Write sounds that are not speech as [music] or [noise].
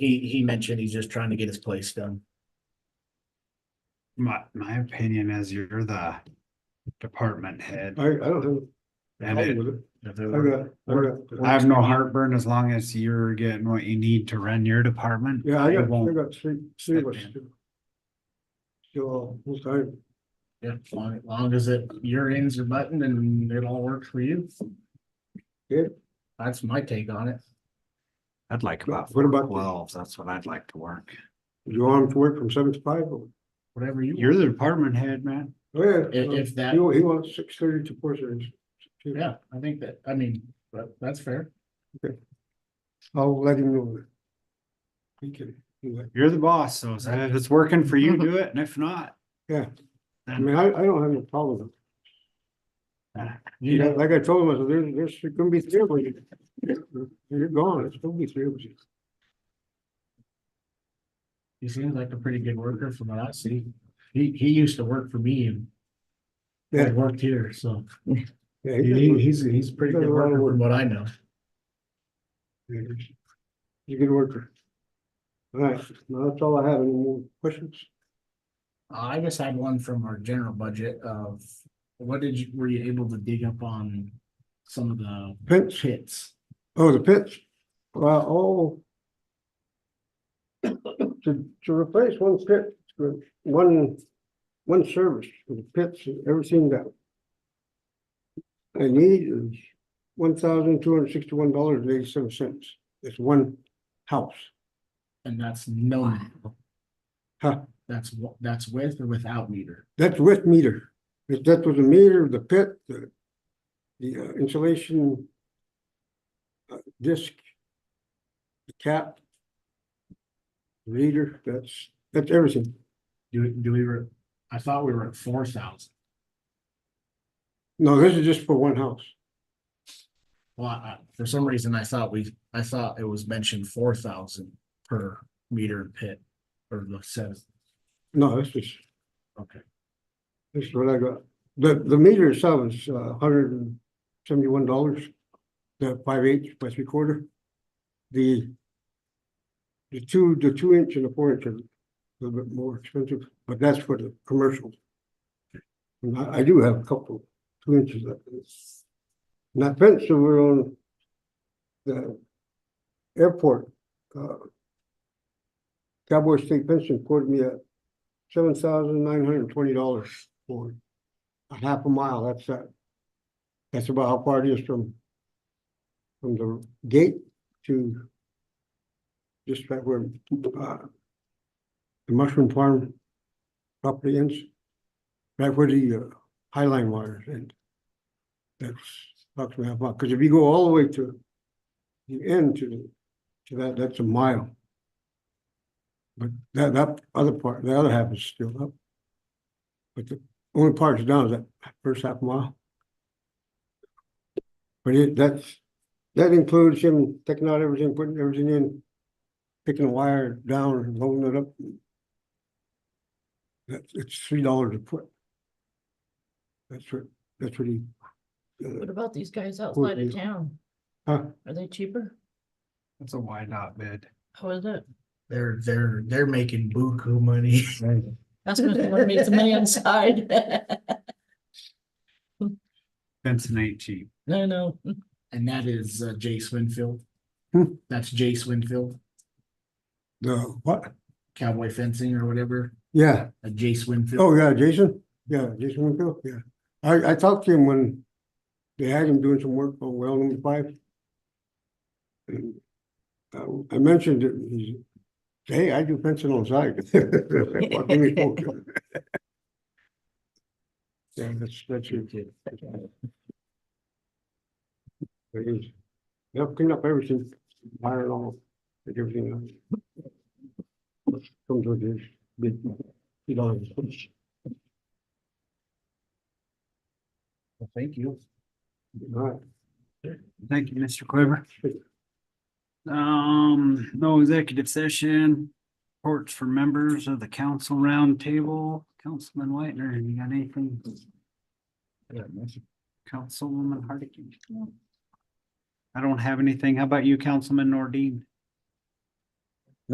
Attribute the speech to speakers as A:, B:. A: He, he mentioned he's just trying to get his place done.
B: My, my opinion is you're the department head.
C: I, I don't
B: And
C: have. a problem
B: it,
C: with it.
A: If
C: I
A: there were-
C: got, I got.
B: I have no heartburn as long as you're getting what you need to run your department.
C: Yeah, I
B: It
C: got, I
B: won't-
C: got three, three of us.
B: Step
C: Still, full time.
A: Yeah, as long, as long as it, your ends are buttoned and it all works for you.
C: Yeah.
A: That's my take on it.
B: I'd like about
C: What about-
B: twelve, that's what I'd like to work.
C: You want to work from seven to five? Oh,
A: Whatever you.
B: You're the department head, man.
C: yeah.
A: want. If, if that,
C: He, wa- he wants six thirty to four thirty.
A: yeah, I think that, I mean, but that's fair.
C: I'll let him know. that. He can, do that.
B: You're the boss, so if it's working for you, do it, and if not.
C: Yeah. I
B: then-
C: mean, I, I don't have no problem with it.
A: You
C: Yeah,
A: know,
C: like I told him, I said, there's, there's gonna be three of you. You're gone, it's gonna be three of you.
A: he seems like a pretty good worker from what I see. He, he used to work for me and I
C: Yeah.
A: worked here, so
C: Yeah,
A: he,
C: he- he-
A: he's, he's a pretty good worker from what I know.
C: he- He's a good worker. All right, now that's all I have. Any more questions?
A: I just had one from our general budget of, what did you, were you able to dig up on some of the
C: Pits?
A: pits?
C: Oh, the pits? Well, all. To, to replace one pit, with one, one service, for the pits, and everything that. I need is one thousand two hundred sixty-one dollars and eighty-seven cents. It's one house.
A: And that's no,
C: Huh,
A: that's, wa- that's with or without meter.
C: that's with meter. If that was a meter, the pit, the, the uh, insulation. uh, Disc. The cap. Reader, that's, that's everything.
A: Do, do we, were? I thought we were at four thousand.
C: No, this is just for one house.
A: Well, I, for some reason, I thought we, I thought it was mentioned four thousand per meter pit or the says,
C: No, this is,
A: okay.
C: this is what I got. The, the meter itself is uh hundred and seventy-one dollars. The five eighths by three quarter. The. The two, the two inch and the four inch are a little bit more expensive, but that's for the commercial. And I, I do have a couple, two inches of this. And that fence over on the airport, uh. Cowboy State Pension quoted me at seven thousand nine hundred and twenty dollars for a half a mile, that's that. That's about how far it is from from the gate to just right where uh the mushroom farm property ends, right where the uh, High Line waters end. That's approximately half a mile, because if you go all the way to the end to to that, that's a mile. But that, that other part, the other half is still up. But the only part that's down is that first half mile. But it, that's, that includes him taking out everything, putting everything in, picking the wire down and loading it up. That's, it's three dollars a foot. That's what, that's what he. uh,
D: What about these guys outside
C: you-
D: of town?
C: Huh?
D: Are they cheaper?
B: It's a wide dot bid.
D: How is it?
A: They're, they're, they're making buku money. [laughs]
D: That's gonna wanna meet somebody [laughs] inside.
B: Fencing ain't cheap.
D: No, no.
A: And that is uh, Jace Winfield.
C: Hmm.
A: That's Jace Winfield,
C: The, what?
A: cowboy fencing or whatever,
C: Yeah,
A: uh, Jace
C: oh
A: Winfield.
C: yeah, Jason, yeah, Jason Winfield, yeah. I, I talked to him when they had him doing some work on well number five. [clears throat] And I, I mentioned it, and he said, hey, I do fencing on [laughs] side. What can we do? [laughs] Yeah, that's, that's it. It is. They'll clean up everything, wire it all, take everything out. Comes with this big, you know,
A: Well, Thank you.
C: all right.
B: Thank you, Mr. Quiver. Um, no executive session, reports for members of the council roundtable. Councilman Whitener, you got anything? Councilwoman Hardikin? I don't have anything. How about you, Councilman Nordine?